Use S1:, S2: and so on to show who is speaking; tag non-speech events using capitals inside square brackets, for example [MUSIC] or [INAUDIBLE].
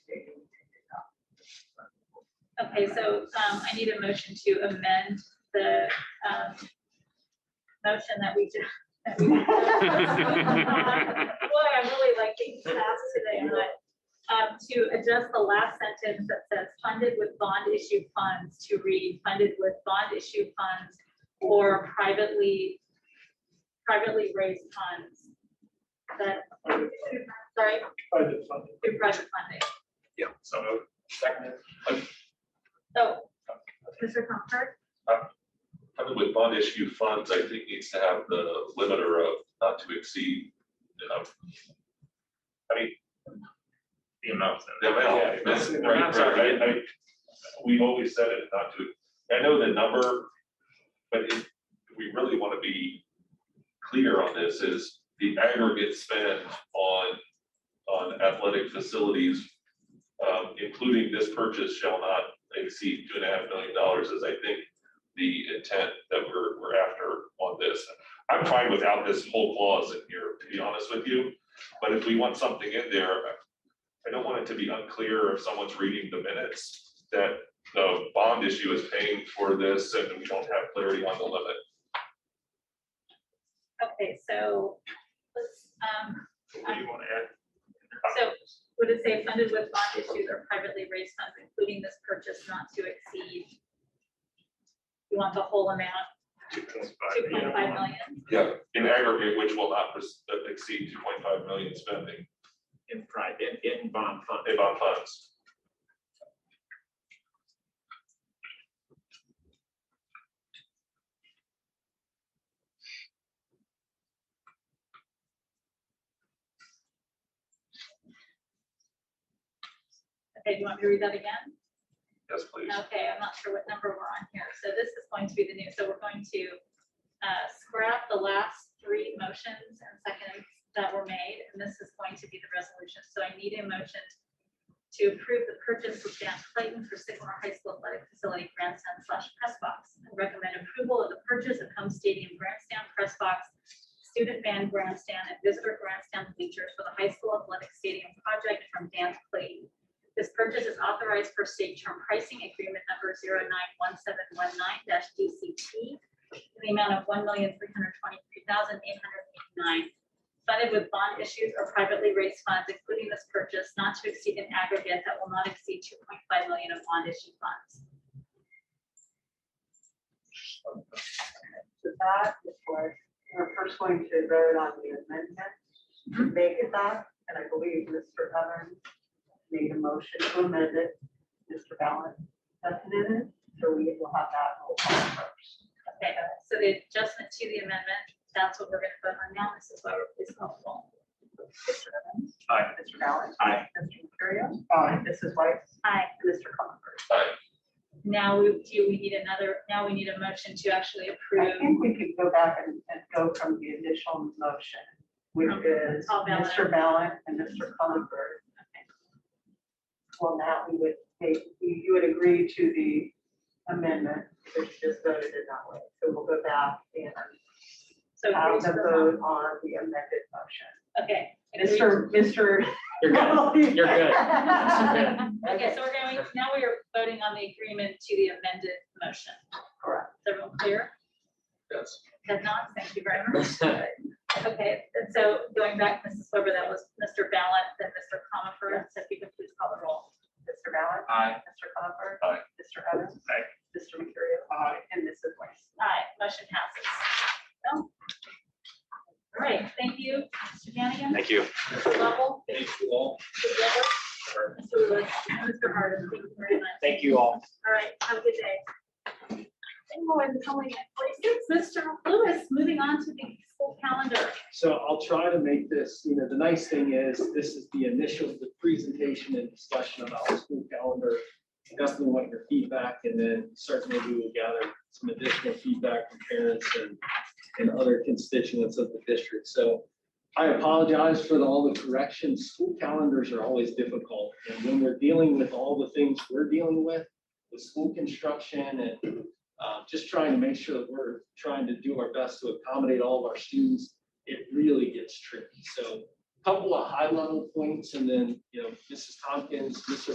S1: Okay, so um, I need a motion to amend the um, motion that we just. that we- Boy, I really like being fast today, but um, to adjust the last sentence that says funded with bond issue funds to read funded with bond issue funds or privately, privately raised funds. That, sorry,
S2: Budget funding.
S1: through project funding.
S3: Yeah,
S2: So moved. Seconded.
S1: So, Mr. Oh, Comfort?
S4: Probably with bond issue funds, I think needs to have the limiter of not to exceed, you know,
S3: The amount.
S4: the
S2: Yeah,
S4: amount. That's-
S2: the
S4: Right,
S2: amount's already-
S4: right, I, I, we've always said it, not to, I know the number, but if we really want to be clear on this, is the aggregate spend on, on athletic facilities, um, including this purchase shall not exceed two and a half million dollars, is I think the intent that we're, we're after on this. I'm fine without this whole clause in here, to be honest with you, but if we want something in there, I don't want it to be unclear if someone's reading the minutes that the bond issue is paying for this and we don't have clarity on the limit.
S1: Okay, so, let's, um,
S2: What do you want to add?
S1: so would it say funded with bond issues or privately raised funds, including this purchase not to exceed? You want the whole amount,
S2: Two point five.
S1: two point five million?
S4: Yeah. In aggregate, which will not pres- exceed two point five million spending
S3: In private, in bond fund.
S4: in bond funds.
S1: Okay, do you want me to read that again?
S4: Yes, please.
S1: Okay, I'm not sure what number we're on here. So this is going to be the new, so we're going to uh, scrap the last three motions and seconds that were made, and this is going to be the resolution. So I need a motion to approve the purchase of Dan Clayton for Sycamore High School Athletic Facility grandstand slash press box. and Recommend approval of the purchase of home stadium grandstand press box, student band grandstand, and visitor grandstand bleachers for the high school athletic stadium project from Dan Clayton. This purchase is authorized for state term pricing agreement number 91719 DCT in the amount of one million, three hundred twenty-three thousand, eight hundred eighty-nine, funded with bond issues or privately raised funds, including this purchase, not to exceed an aggregate that will not exceed two point five million of bond issue funds.
S5: So that is what, we're first going to vote on the amendment to make it that, and I believe Mr. Evans made a motion to amend it. Mr. Ballant seconded it, so we will have that roll call first.
S1: Okay, so the adjustment to the amendment, that's what we're gonna vote on now. This is why we're, please call the roll.
S5: Mr. Evans?
S3: Aye.
S5: Mr. Ballant?
S3: Aye.
S5: Mr. Mercurio? Aye. Mrs. Weiss?
S1: Aye.
S5: And Mr. Comer?
S1: Now we, do we need another, now we need a motion to actually
S5: I
S1: approve.
S5: think we could go back and, and go from the initial motion, which is
S1: All Ballant.
S5: Mr. Ballant and Mr. Comer. Well, now we would, make- you you would agree to the amendment, which just voted it that way. So we'll go back and
S1: So
S5: have
S1: agree
S5: the
S1: to the-
S5: vote on the amended motion.
S1: okay. agree to-
S5: Mr. Mr.
S3: You're good. You're
S5: [LAUGHS]
S3: good.
S1: Okay, so we're going, now we are voting on the agreement to the amended motion.
S5: Correct.
S1: Is everyone clear?
S4: Yes.
S1: Ted Knox, thank you very much. Okay, and so going back, Mrs. Weber, that was Mr. Ballant, then Mr. Comer, so if you could please call the roll.
S5: Mr. Ballard.
S3: Aye.
S5: Mr. Comer.
S4: Aye.
S5: Mr. Evans.
S3: Aye.
S5: Mr. Mercurio. Aye. And Mrs. Weiss.
S1: Aye, motion passes. So, All right, thank you, Mr. Hannigan.
S6: Thank you.
S1: Mr. Lovell,
S3: Thank you all.
S1: Mr. Weber, Mr. Lewis, and Mr. Harden, thank you very much.
S3: Thank you all.
S1: All right, have a good day. And we're coming at forty-six, Mr. Lewis, moving on to the school calendar.
S2: So I'll try to make this, you know, the nice thing is, this is the initial, the presentation and discussion about the school calendar. I Definitely want your feedback, and then certainly we will gather some additional feedback from parents and, and other constituents of the district. So I apologize for the- all the corrections. School calendars are always difficult, and when we're dealing with all the things we're dealing with, with school construction and uh, just trying to make sure that we're trying to do our best to accommodate all of our students it really gets tricky. So a couple of high level points and then, you know, Mrs. Tompkins, Mr.